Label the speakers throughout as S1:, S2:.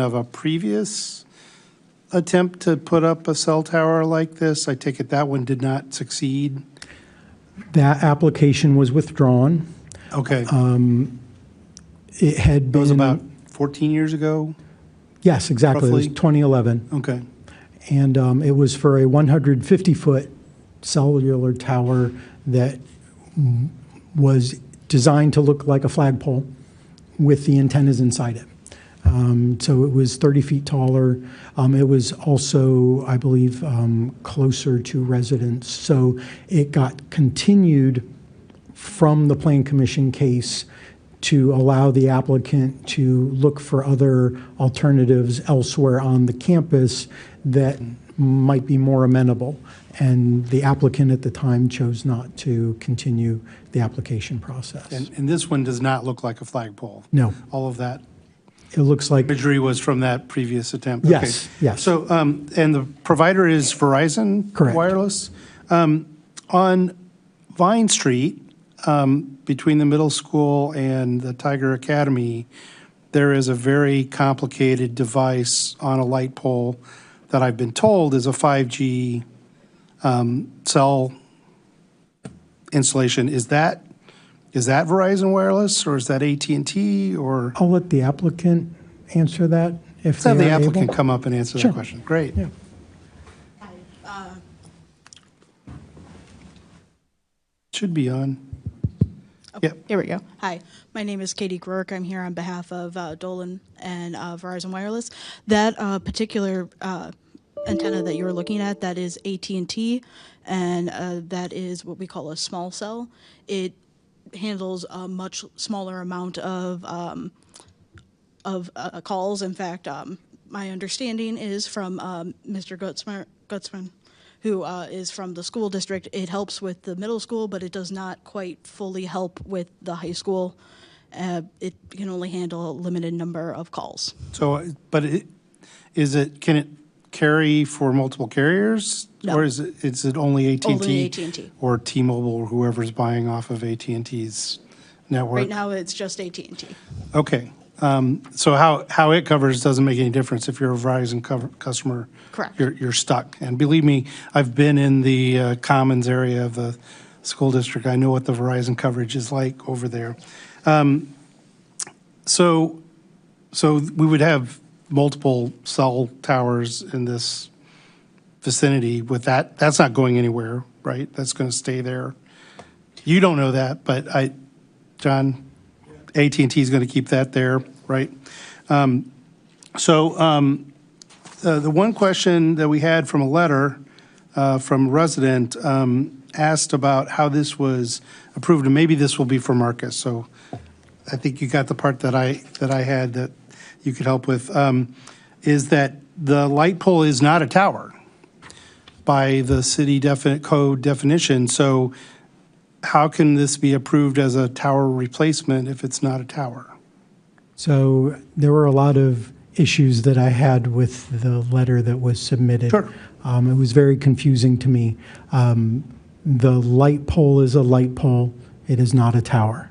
S1: of a previous attempt to put up a cell tower like this. I take it that one did not succeed.
S2: That application was withdrawn.
S1: Okay,
S2: It had
S1: it
S2: been.
S1: Uh, was about 14 years ago.
S2: Yes, exactly. It was
S1: roughly-
S2: 2011.
S1: Okay,
S2: And um, it was for a 150-foot cellular tower that mm, was designed to look like a flagpole with the antennas inside it. Um, So it was 30 feet taller. Um, It was also, I believe, um, closer to residents. So it got continued from the Plan Commission case to allow the applicant to look for other alternatives elsewhere on the campus that might be more amenable. And the applicant at the time chose not to continue the application process.
S1: and, and this one does not look like a flagpole.
S2: No,
S1: All of that
S2: it looks like,
S1: imagery was from that previous attempt.
S2: Yes,
S1: Okay.
S2: yes.
S1: So, um, and the provider is Verizon?
S2: Correct.
S1: Wireless? Um, On Vine Street, um, between the middle school and the Tiger Academy, there is a very complicated device on a light pole that I've been told is a 5G um, cell installation. Is that, is that Verizon Wireless, or is that at and T or?
S2: I'll let the applicant answer that
S1: Let's
S2: if they are
S1: have
S2: able.
S1: the applicant come up and answer that
S2: Sure.
S1: question. Great. uh,
S2: Yeah.
S1: Should be on. Yep.
S3: Here we go.
S4: Hi, my name is Katie Grurk. I'm here on behalf of uh, Dolan and uh, Verizon Wireless. That uh, particular uh, antenna that you're looking at, that is AT&T, and uh, that is what we call a small cell. It handles a much smaller amount of um, of uh, calls. In fact, um, my understanding is from um, Mr. Gutzmer, Gutzman, who uh, is from the school district. It helps with the middle school, but it does not quite fully help with the high school. Uh, it can only handle a limited number of calls.
S1: So, but it, is it, can it carry for multiple carriers?
S4: No.
S1: Or is it, is it only at and
S4: Only
S1: t
S4: AT&T.
S1: Or T-Mobile or whoever's buying off of at and ts network?
S4: Right now, it's just AT and T.
S1: Okay. Um, So how, how it covers doesn't make any difference if you're a Verizon cover- customer.
S4: Correct.
S1: You're, you're stuck. And believe me, I've been in the uh, Commons area of the school district. I know what the Verizon coverage is like over there. Um, So, so we would have multiple cell towers in this vicinity with that. That's not going anywhere, right? That's going to stay there. You don't know that, but I, John, at and T is going to keep that there, right? Um, So um, the the one question that we had from a letter uh, from a resident um, asked about how this was approved, and maybe this will be for Marcus, so I think you got the part that I, that I had that you could help with, um, is that the light pole is not a tower by the city definite code definition, so how can this be approved as a tower replacement if it's not a tower?
S2: So there were a lot of issues that I had with the letter that was submitted.
S1: Sure.
S2: Um, it was very confusing to me. Um, the light pole is a light pole, it is not a tower.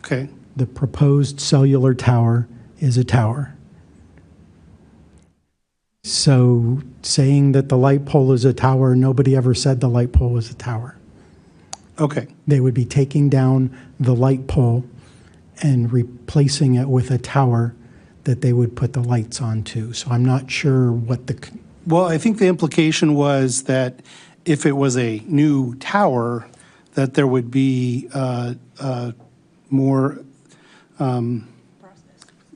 S1: Okay,
S2: The proposed cellular tower is a tower. So saying that the light pole is a tower, nobody ever said the light pole was a tower.
S1: okay,
S2: They would be taking down the light pole and replacing it with a tower that they would put the lights onto. So I'm not sure what the, c-
S1: well, I think the implication was that if it was a new tower, that there would be uh, uh, more, um,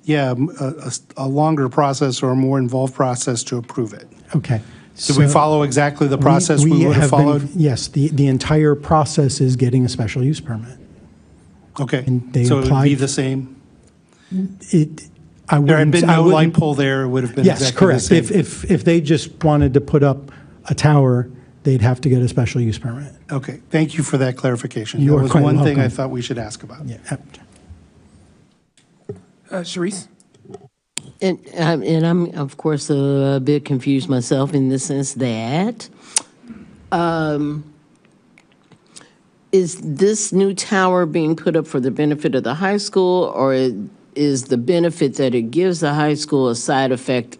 S1: yeah, m- a- a s- a longer process or a more involved process to approve it.
S2: okay.
S1: Did we
S2: So
S1: follow exactly the process we would have
S2: been-
S1: followed?
S2: Yes, the, the entire process is getting a special use permit.
S1: Okay,
S2: and they
S1: so it would be
S2: applied-
S1: the same?
S2: It, I
S1: There had
S2: wouldn't,
S1: been
S2: I
S1: no light
S2: wouldn't.
S1: pole there, it would have been
S2: Yes,
S1: exactly the
S2: correct.
S1: same?
S2: If, if, if they just wanted to put up a tower, they'd have to get a special use permit.
S1: Okay, thank you for that clarification.
S2: You
S1: That
S2: are
S1: was
S2: quite
S1: one thing I
S2: welcome.
S1: thought we should ask about.
S2: Yeah.
S5: Uh, Sharice?
S6: And, um, and I'm, of course, a bit confused myself in the sense that um, is this new tower being put up for the benefit of the high school, or is the benefit that it gives the high school a side effect